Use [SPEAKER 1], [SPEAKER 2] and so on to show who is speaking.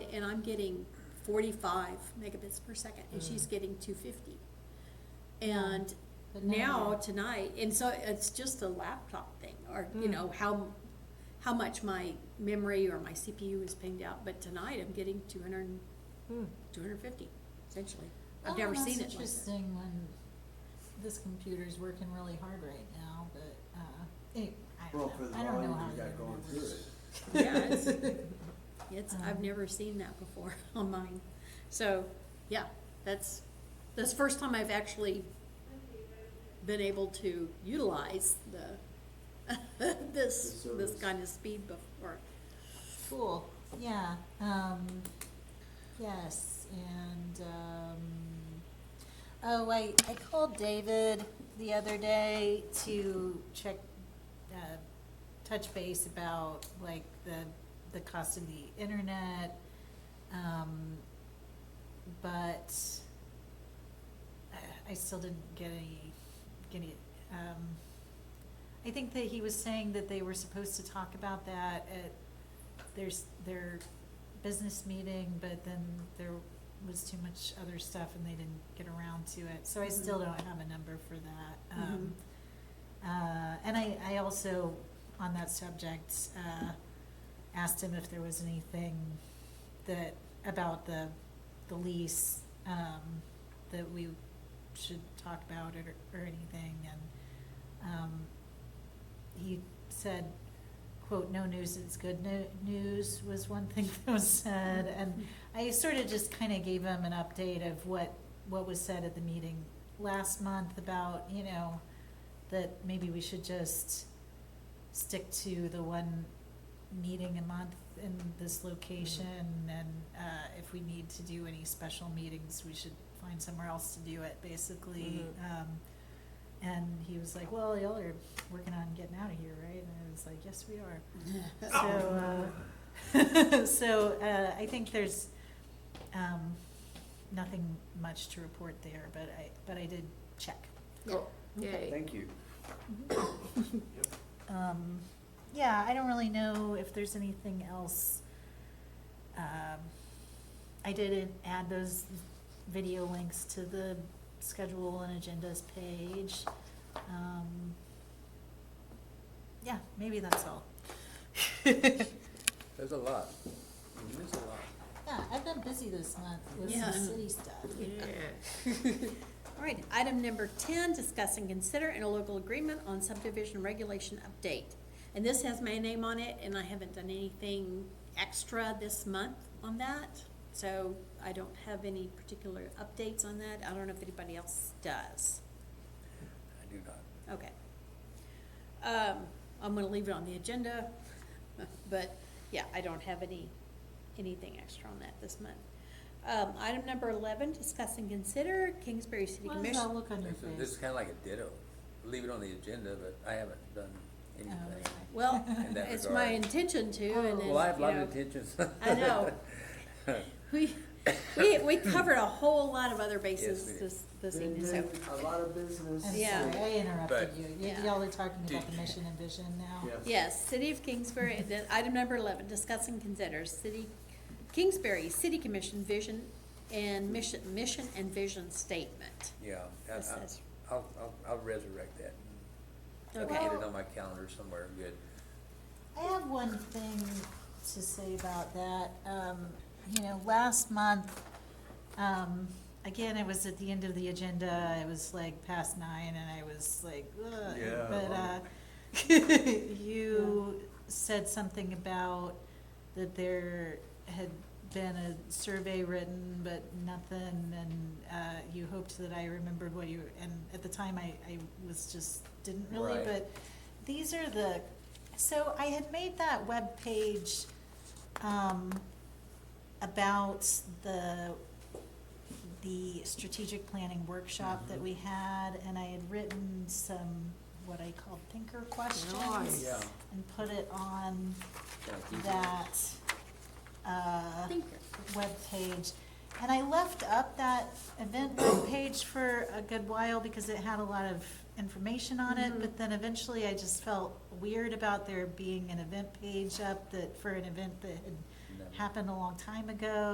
[SPEAKER 1] and I'm getting forty-five megabits per second, and she's getting two fifty. And
[SPEAKER 2] Mm. But
[SPEAKER 1] now
[SPEAKER 2] you're-
[SPEAKER 1] tonight, and so it's just a laptop thing, or, you
[SPEAKER 2] Mm.
[SPEAKER 1] know, how, how much my memory or my CPU is pinged out, but tonight I'm getting two hundred,
[SPEAKER 3] Hmm.
[SPEAKER 1] two hundred fifty, essentially.
[SPEAKER 2] Well,
[SPEAKER 1] I've never
[SPEAKER 2] and Oh, that's
[SPEAKER 1] seen it like that.
[SPEAKER 2] interesting when this computer's working really hard right now, but, uh, it, I
[SPEAKER 4] Well,
[SPEAKER 2] don't
[SPEAKER 4] for the
[SPEAKER 2] know, I don't know
[SPEAKER 4] volume
[SPEAKER 2] how
[SPEAKER 4] you
[SPEAKER 2] the
[SPEAKER 4] got going
[SPEAKER 2] internet
[SPEAKER 4] through
[SPEAKER 2] works.
[SPEAKER 4] it.
[SPEAKER 1] Yeah, it's, it's, I've
[SPEAKER 2] Um,
[SPEAKER 1] never seen that before on mine. So, yeah, that's, that's the first time I've actually been able to utilize the, this,
[SPEAKER 4] The
[SPEAKER 1] this
[SPEAKER 4] service.
[SPEAKER 1] kind of speed before.
[SPEAKER 2] Cool, yeah, um, yes, and, um, oh, I, I called David the other day to check, uh, touch base about like the, the cost of the internet, um, but I- I still didn't get any, get any, um, I think that he was saying that they were supposed to talk about that at there's their business meeting, but then there was too much other stuff and they didn't get around to it. So I still
[SPEAKER 1] Mhm.
[SPEAKER 2] don't have a number for that. Um, uh, and I, I also, on that subject, uh, asked him if there was anything that, about the, the lease, um, that we should talk about it or, or anything, and, um, he said, quote, no news is good no- news was one thing that was said, and I sort of just kind of gave him an update of what, what was said at the meeting last month about, you know, that maybe we should just stick to the one meeting a month in this location, and, uh, if we need to do any special meetings, we should find somewhere else to do it, basically. Um, and he was like, well, y'all are working on getting out of here, right? And I was like, yes, we are. So, uh, so, uh, I think there's, um, nothing much to report there, but I, but I did check.
[SPEAKER 1] Yeah.
[SPEAKER 3] Yay.
[SPEAKER 4] Thank you.
[SPEAKER 2] Um, yeah, I don't really know if there's anything else. Um, I didn't add those video links to the schedule and agendas page. Um, yeah, maybe that's all.
[SPEAKER 3] There's a lot.
[SPEAKER 4] Mm-hmm.
[SPEAKER 3] There's a lot.
[SPEAKER 2] Yeah, I've been busy this month with
[SPEAKER 1] Yeah.
[SPEAKER 2] some city stuff.
[SPEAKER 1] All right, item number ten, discuss and consider interlocal agreement on subdivision regulation update. And this has my name on it, and I haven't done anything extra this month on that, so I don't have any particular updates on that. I don't know if anybody else does.
[SPEAKER 3] I do not.
[SPEAKER 1] Okay. Um, I'm gonna leave it on the agenda, but, yeah, I don't have any, anything extra on that this month. Um, item number eleven, discuss and consider Kingsbury City
[SPEAKER 2] What
[SPEAKER 1] Commission.
[SPEAKER 2] does that look on your
[SPEAKER 3] This is- This is
[SPEAKER 2] face?
[SPEAKER 3] kinda like a ditto. Leave it on the agenda, but I haven't done
[SPEAKER 2] Oh,
[SPEAKER 3] anything.
[SPEAKER 2] okay.
[SPEAKER 1] Well,
[SPEAKER 3] In that
[SPEAKER 1] it's my
[SPEAKER 3] regard.
[SPEAKER 1] intention to, and then,
[SPEAKER 3] Well, I have a lot
[SPEAKER 1] you know,
[SPEAKER 3] of intentions.
[SPEAKER 1] I know. We, we, we covered a whole lot of other bases
[SPEAKER 3] did.
[SPEAKER 1] this, this
[SPEAKER 4] Been
[SPEAKER 1] evening, so,
[SPEAKER 4] doing a lot of business.
[SPEAKER 2] I'm
[SPEAKER 1] Yeah.
[SPEAKER 2] sorry, I interrupted
[SPEAKER 3] But-
[SPEAKER 2] you. Y-
[SPEAKER 1] Yeah.
[SPEAKER 2] Y'all are talking about
[SPEAKER 3] Did-
[SPEAKER 2] the mission and vision now.
[SPEAKER 4] Yes.
[SPEAKER 1] yes, City of Kingsbury, and then item number eleven, discuss and consider city, Kingsbury City Commission vision and mission, mission and vision statement.
[SPEAKER 3] Yeah, I-
[SPEAKER 1] What's
[SPEAKER 3] I-
[SPEAKER 1] this?
[SPEAKER 3] I'll, I'll, I'll resurrect that. I'll
[SPEAKER 1] Okay.
[SPEAKER 3] get it on my calendar somewhere good.
[SPEAKER 2] I have one thing to say about that. Um, you know, last month, um, again, it was at the end of the agenda. It was like past nine and I was like, ugh.
[SPEAKER 4] Yeah,
[SPEAKER 2] But, uh,
[SPEAKER 4] well.
[SPEAKER 2] you said something about that there had been a survey written, but nothing, and, uh, you hoped that I remembered what you, and at the time I, I was just, didn't really,
[SPEAKER 3] Right.
[SPEAKER 2] but these are the, so I had made that web page um, about the, the strategic planning workshop that
[SPEAKER 3] Mhm.
[SPEAKER 2] we had, and I had written some, what I called thinker questions,
[SPEAKER 3] Nice. Yeah.
[SPEAKER 2] and put it on
[SPEAKER 3] Thank you.
[SPEAKER 2] that, uh,
[SPEAKER 1] Thinker.
[SPEAKER 2] webpage. And I left up that event webpage for a good while because it had a lot of information on it,
[SPEAKER 1] Mhm.
[SPEAKER 2] but then eventually I just felt weird about there being an event page up that, for an event that had
[SPEAKER 3] No. happened.
[SPEAKER 2] happened a long time ago,